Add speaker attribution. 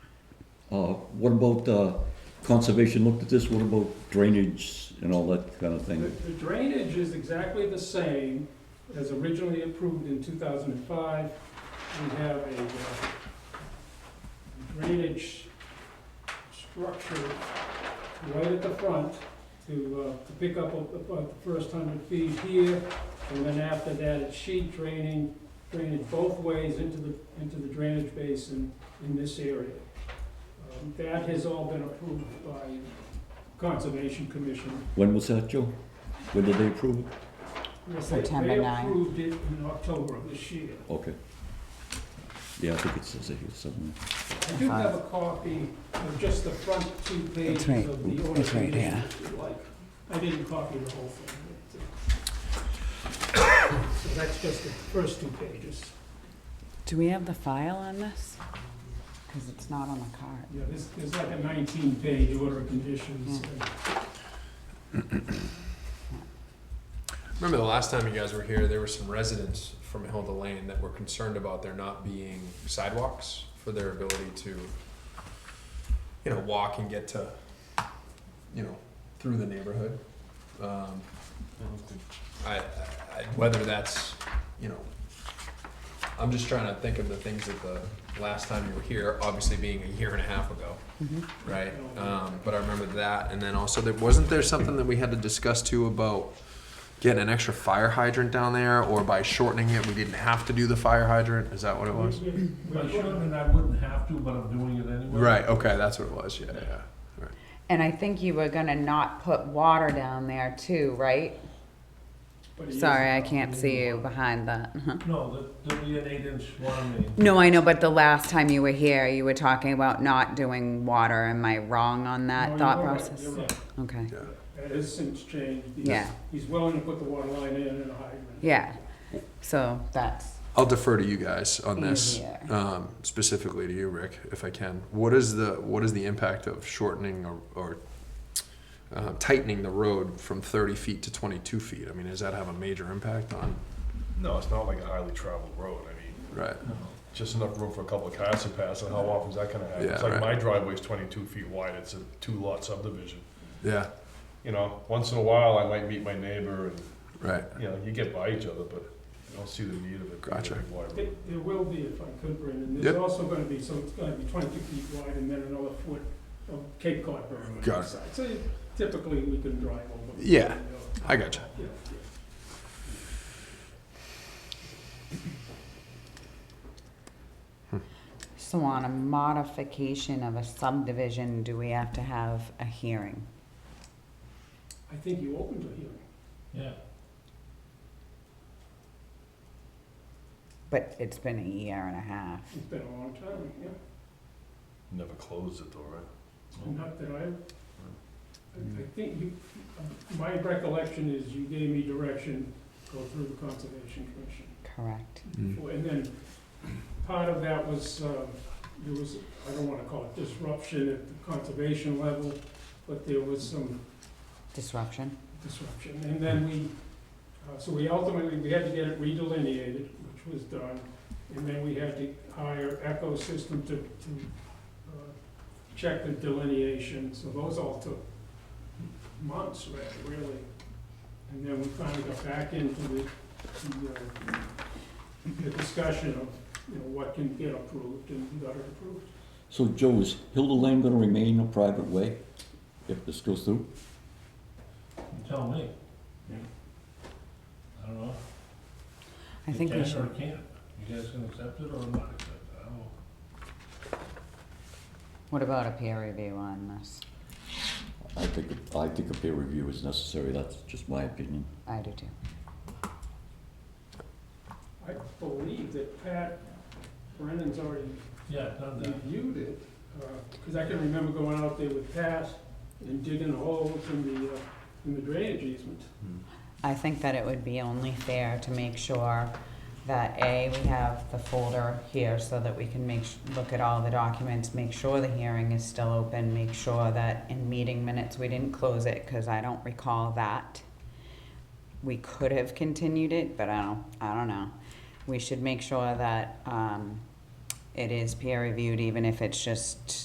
Speaker 1: Uh, What about uh, conservation looked at this? What about drainage and all that kind of
Speaker 2: The
Speaker 1: thing?
Speaker 2: the drainage is exactly the same as originally approved in 2005. We have a uh, drainage structure right at the front to, uh, to pick up a- about the first hundred feet here. And then after that, it's sheet draining, drainage both ways into the, into the drainage basin in this area. Um, That has all been approved by Conservation Commission.
Speaker 1: When was that, Joe? When did they approve it?
Speaker 2: Yes, they-
Speaker 3: September 9.
Speaker 2: They approved it in October of this year.
Speaker 1: Okay. Yeah, I think it says it here somewhere.
Speaker 2: I do have a copy of just the front two pages
Speaker 3: It's right-
Speaker 2: of the order.
Speaker 3: it's right here.
Speaker 2: if you like. I didn't copy the whole thing. but, uh, So that's just the first two pages.
Speaker 3: Do we have the file on this? Because it's not on the card.
Speaker 2: Yeah, there's, there's like a nineteen-page order of conditions.
Speaker 4: Remember the last time you guys were here, there were some residents from Hilda Lane that were concerned about there not being sidewalks for their ability to, you know, walk and get to, you know, through the neighborhood. Um, I, I, I- whether that's, you know, I'm just trying to think of the things that the last time you were here, obviously being a year and a half ago, right? Um, but I remember that, and then also there wasn't there something that we had to discuss too about getting an extra fire hydrant down there, or by shortening it, we didn't have to do the fire hydrant. Is that what it was?
Speaker 5: Well, I shouldn't, and I wouldn't have to, but I'm doing it anyway.
Speaker 4: Right. Okay, that's what it was. Yeah, yeah.
Speaker 3: And I think you were gonna not put water down there too, right?
Speaker 2: But it is-
Speaker 3: Sorry, I can't see you behind that.
Speaker 5: No, there- there'll be an eight-inch water main.
Speaker 3: No, I know, but the last time you were here, you were talking about not doing water. Am I wrong on
Speaker 2: No,
Speaker 3: that thought
Speaker 2: you're right,
Speaker 3: process?
Speaker 2: you're right.
Speaker 3: Okay,
Speaker 4: yeah.
Speaker 2: It has since changed. He's-
Speaker 3: Yeah.
Speaker 2: He's willing to put the water line in and a hydrant.
Speaker 3: yeah. So that's,
Speaker 4: I'll defer to you guys on this,
Speaker 3: Easier.
Speaker 4: um, specifically to you, Rick, if I can. What is the what is the impact of shortening or, or uh, tightening the road from 30 feet to 22 feet? I mean, does that have a major impact on?
Speaker 6: No, it's not like a highly traveled road. I mean,
Speaker 4: Right.
Speaker 6: just enough room for a couple of cars to pass, and how often is that gonna happen?
Speaker 4: Yeah,
Speaker 6: It's like
Speaker 4: right.
Speaker 6: my driveway's twenty-two feet wide, it's a two-lot subdivision.
Speaker 4: Yeah.
Speaker 6: You know, once in a while, I might meet my neighbor, and,
Speaker 4: Right.
Speaker 6: you know, you get by each other, but I don't see the need of it. being a
Speaker 4: Gotcha.
Speaker 6: big wide road.
Speaker 2: It, there will be, if I could, Brendan,
Speaker 4: Yep.
Speaker 2: there's also gonna be, so it's gonna be twenty-two feet wide and then another foot of Cape Cod berm on
Speaker 4: Got
Speaker 2: the
Speaker 4: it.
Speaker 2: side. So you- typically, we can drive over.
Speaker 4: Yeah. I gotcha.
Speaker 2: Yeah,
Speaker 3: so on a modification of a subdivision, do we have to have a hearing?
Speaker 2: I think you opened a hearing.
Speaker 5: Yeah.
Speaker 3: But it's been a year and a half.
Speaker 2: It's been a long time, yeah.
Speaker 6: Never closed it though, right?
Speaker 2: Not that I, I I think you, my recollection is you gave me direction, go through the Conservation Commission.
Speaker 3: Correct.
Speaker 4: Mm.
Speaker 2: And then part of that was, um, there was, I don't wanna call it disruption at the conservation level, but there was some
Speaker 3: Disruption.
Speaker 2: disruption. And then we, uh, so we ultimately, we had to get it redelineated, which was done. And then we had to hire Echo System to, to uh, check the delineation. So those all took months, re- really. And then we finally got back into the, the, uh, the discussion of, you know, what can get approved and we got it approved.
Speaker 1: So Joe, is Hilda Lane gonna remain a private way if this goes through?
Speaker 5: You tell me. I don't know.
Speaker 3: I think we
Speaker 5: It
Speaker 3: should.
Speaker 5: can or it can't. You guys can accept it or not accept it. I don't know.
Speaker 3: What about a peer review on this?
Speaker 1: I think, I think a peer review is necessary, that's just my opinion.
Speaker 3: I do too.
Speaker 2: I believe that Pat Brennan's already
Speaker 5: Yeah, I've done that.
Speaker 2: reviewed it, because I can remember going out there with Pat and digging holes in the, uh, in the drainage easement.
Speaker 3: I think that it would be only fair to make sure that A, we have the folder here so that we can make, s- look at all the documents, make sure the hearing is still open, make sure that in meeting minutes, we didn't close it, cause I don't recall that. We could have continued it, but I don't, I don't know. We should make sure that, um, it is peer reviewed, even if it's just